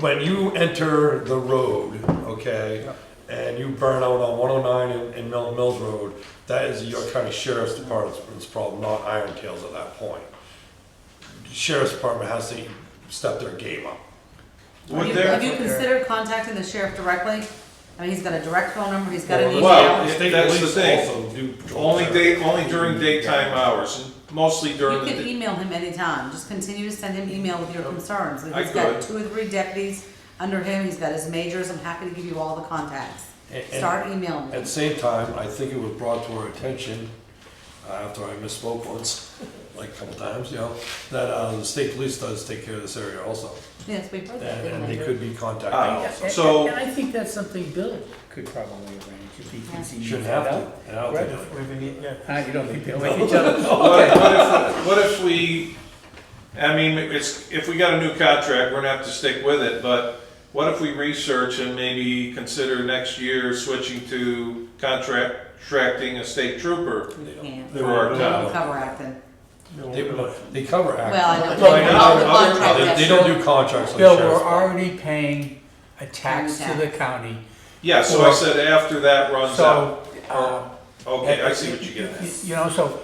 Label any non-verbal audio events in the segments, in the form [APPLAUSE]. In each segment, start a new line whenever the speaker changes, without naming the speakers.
when you enter the road, okay, and you burn out on one oh nine and, and Milton Mills Road, that is your county sheriff's department's problem, not Iron Tail's at that point. Sheriff's department has to step their game up.
Would
Have you-
there,
Have you considered contacting the sheriff directly? I mean, he's got a direct phone number, he's got an email.
Well,
The state
that's the
police
thing.
also do patrol
only
there.
day, only during daytime hours, mostly
You
during the,
can
day-
email him anytime, just continue to send him email with your concerns.
I
He's got
could.
two or three deputies under him, he's got his majors, I'm happy to give you all the contacts.
And- and-
Start emailing
At
him.
the same time, I think it was brought to our attention, uh, after I misspoke once, like a couple times, you know, that uh, the state police does take care of this area also,
Yes, we've heard
and
that.
and they could be contacted
Ah.
also.
So-
And I think that's something Bill could probably arrange if he thinks he
Shouldn't
needs
have
that
to,
out.
and I'll
Right,
take it.
if we need- yeah. Ah, you don't think they'll like each other?
what, what if, what if we, I mean, it's, if we got a new contract, we're gonna have to stick with it, but what if we research and maybe consider next year switching to contract, contracting a state trooper?
We can't.
They
For our
won't-
town.
We'll cover acting.
They, won't- they cover act.
Well, I know.
No, I know.
All the
Other-
contract,
They-
yes.
They don't do contracts like
Bill, we're
sheriff's.
already paying a tax to the county,
Yeah, so I said after that runs out.
so. uh,
Okay, I see what you get at.
You know, so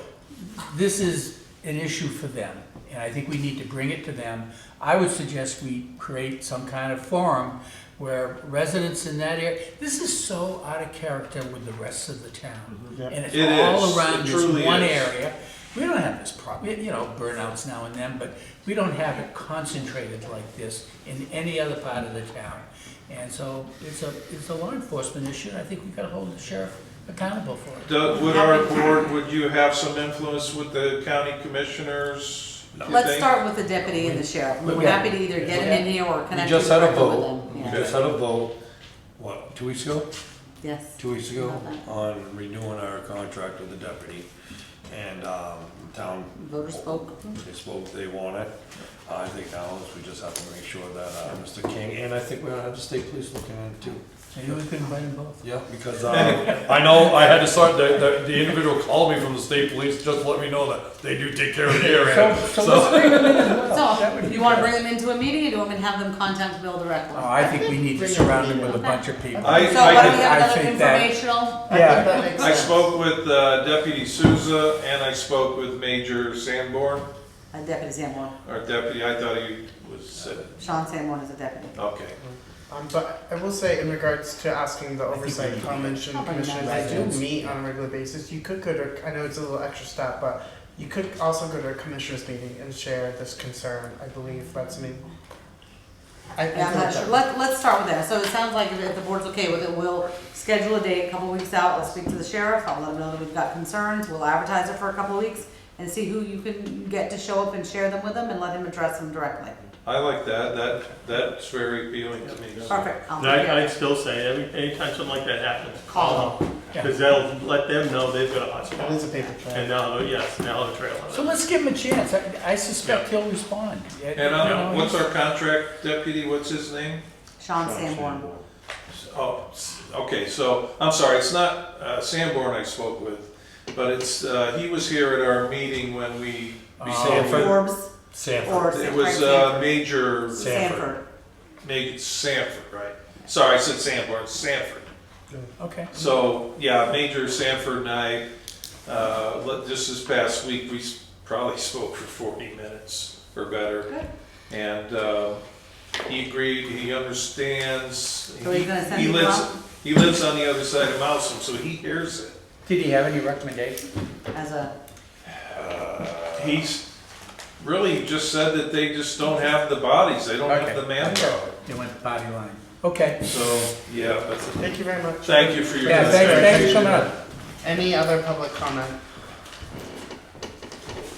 this is an issue for them, and I think we need to bring it to them. I would suggest we create some kind of forum where residents in that area, this is so out of character with the rest of the town. And it's
It is.
all
It
around this
truly
one
is.
area. We don't have this problem, you know, burnouts now and then, but we don't have it concentrated like this in any other part of the town. And so it's a, it's a law enforcement issue, and I think we gotta hold the sheriff accountable for it.
Doug, would our board, would you have some influence with the county commissioners? you
Let's
think?
start with the deputy and the sheriff. We're
Yeah.
happy to either get him in here or
We
connect you
just had a
directly with
vote,
him.
we
Yeah.
just had a vote, what, two weeks ago?
Yes.
two weeks ago
Okay.
on renewing our contract with the deputy. And, um, town.
Voters spoke.
They spoke, they want it. I think now is we just have to make sure that, uh, Mr. King, and I think we're gonna have the state police looking at it too.
Maybe we could invite them both.
Yeah, because, uh, [LAUGHS] I know I had to start, the, the, the individual called me from the state police, just to let me know that they do take care of the area.
So, so let's bring them in as well. That
So,
would be
you wanna
good.
bring them into a meeting or do you want me to have them contact Bill directly?
Oh, I think we need to surround them with a bunch of people.
Uh, I-
So why don't we
I
have another
think that-
informational?
Yeah.
I spoke with uh, Deputy Souza and I spoke with Major Sanborn,
Uh, Deputy Sanborn,
or Deputy, I thought he was, uh,
Sean Sanborn is a deputy.
okay.
Um, but I will say, in regards to asking the
think we need
oversight
to-
comments and
I'll bring
commissioners,
that
I do
back.
meet on a regular basis. You could go to, I know it's a little extra step, but you could also go to a commissioners meeting and share this concern. I believe that's me. I, I
Yeah, I'm
think
not
that-
sure, let, let's start with that, so it sounds like if- if the board's okay with it, we'll schedule a day a couple weeks out, I'll speak to the sheriff, I'll let him know that we've got concerns, we'll advertise it for a couple weeks, and see who you can get to show up and share them with them, and let him address them directly.
I like that, that, that's very appealing to me.
Perfect, I'll
And I,
take
I'd
it.
still say, every, anytime something like that happens,
Call
call them, because that'll let them know they've got a hot
Oh, That is a
spot.
paper trail.
And now, yes, now the trail.
So let's give him a chance. I, I suspect he'll respond.
And uh,
You know,
what's our contract deputy, what's his name?
Sean Sanborn,
Oh, s- okay, so, I'm sorry, it's not uh, Sanborn I spoke with, but it's, uh, he was here at our meeting when we,
Sanford.
Forbes,
Sanford,
or
it
Frank
was uh,
Sanford.
Major,
Sanford,
Major Sanford, right? Sorry, I said Sanborn, Sanford.
Okay.
So, yeah, Major Sanford and I, uh, let- just this past week, we s- probably [LAUGHS] spoke for 40 minutes or better.
Good.
And uh, he agreed, he understands.
So are you gonna send
He
him
lives-
out?
He lives on the other side of Mousom, so he hears it.
Did he have any recommendations?
as a,
Uh, He's really just said that they just don't have the bodies, they don't have
Okay.
the manpower.
They went the body line. Okay.
So, yeah, but
Thank you very much.
thank you for your.
Yeah, thanks, thanks for coming up.
Any other public comment?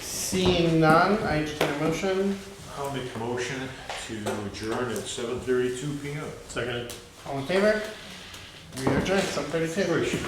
Seeing none, I entertain a motion.
I'll make a motion to adjourn at seven thirty-two PM.
Second.
All in favor? We are adjourned, seven thirty-two.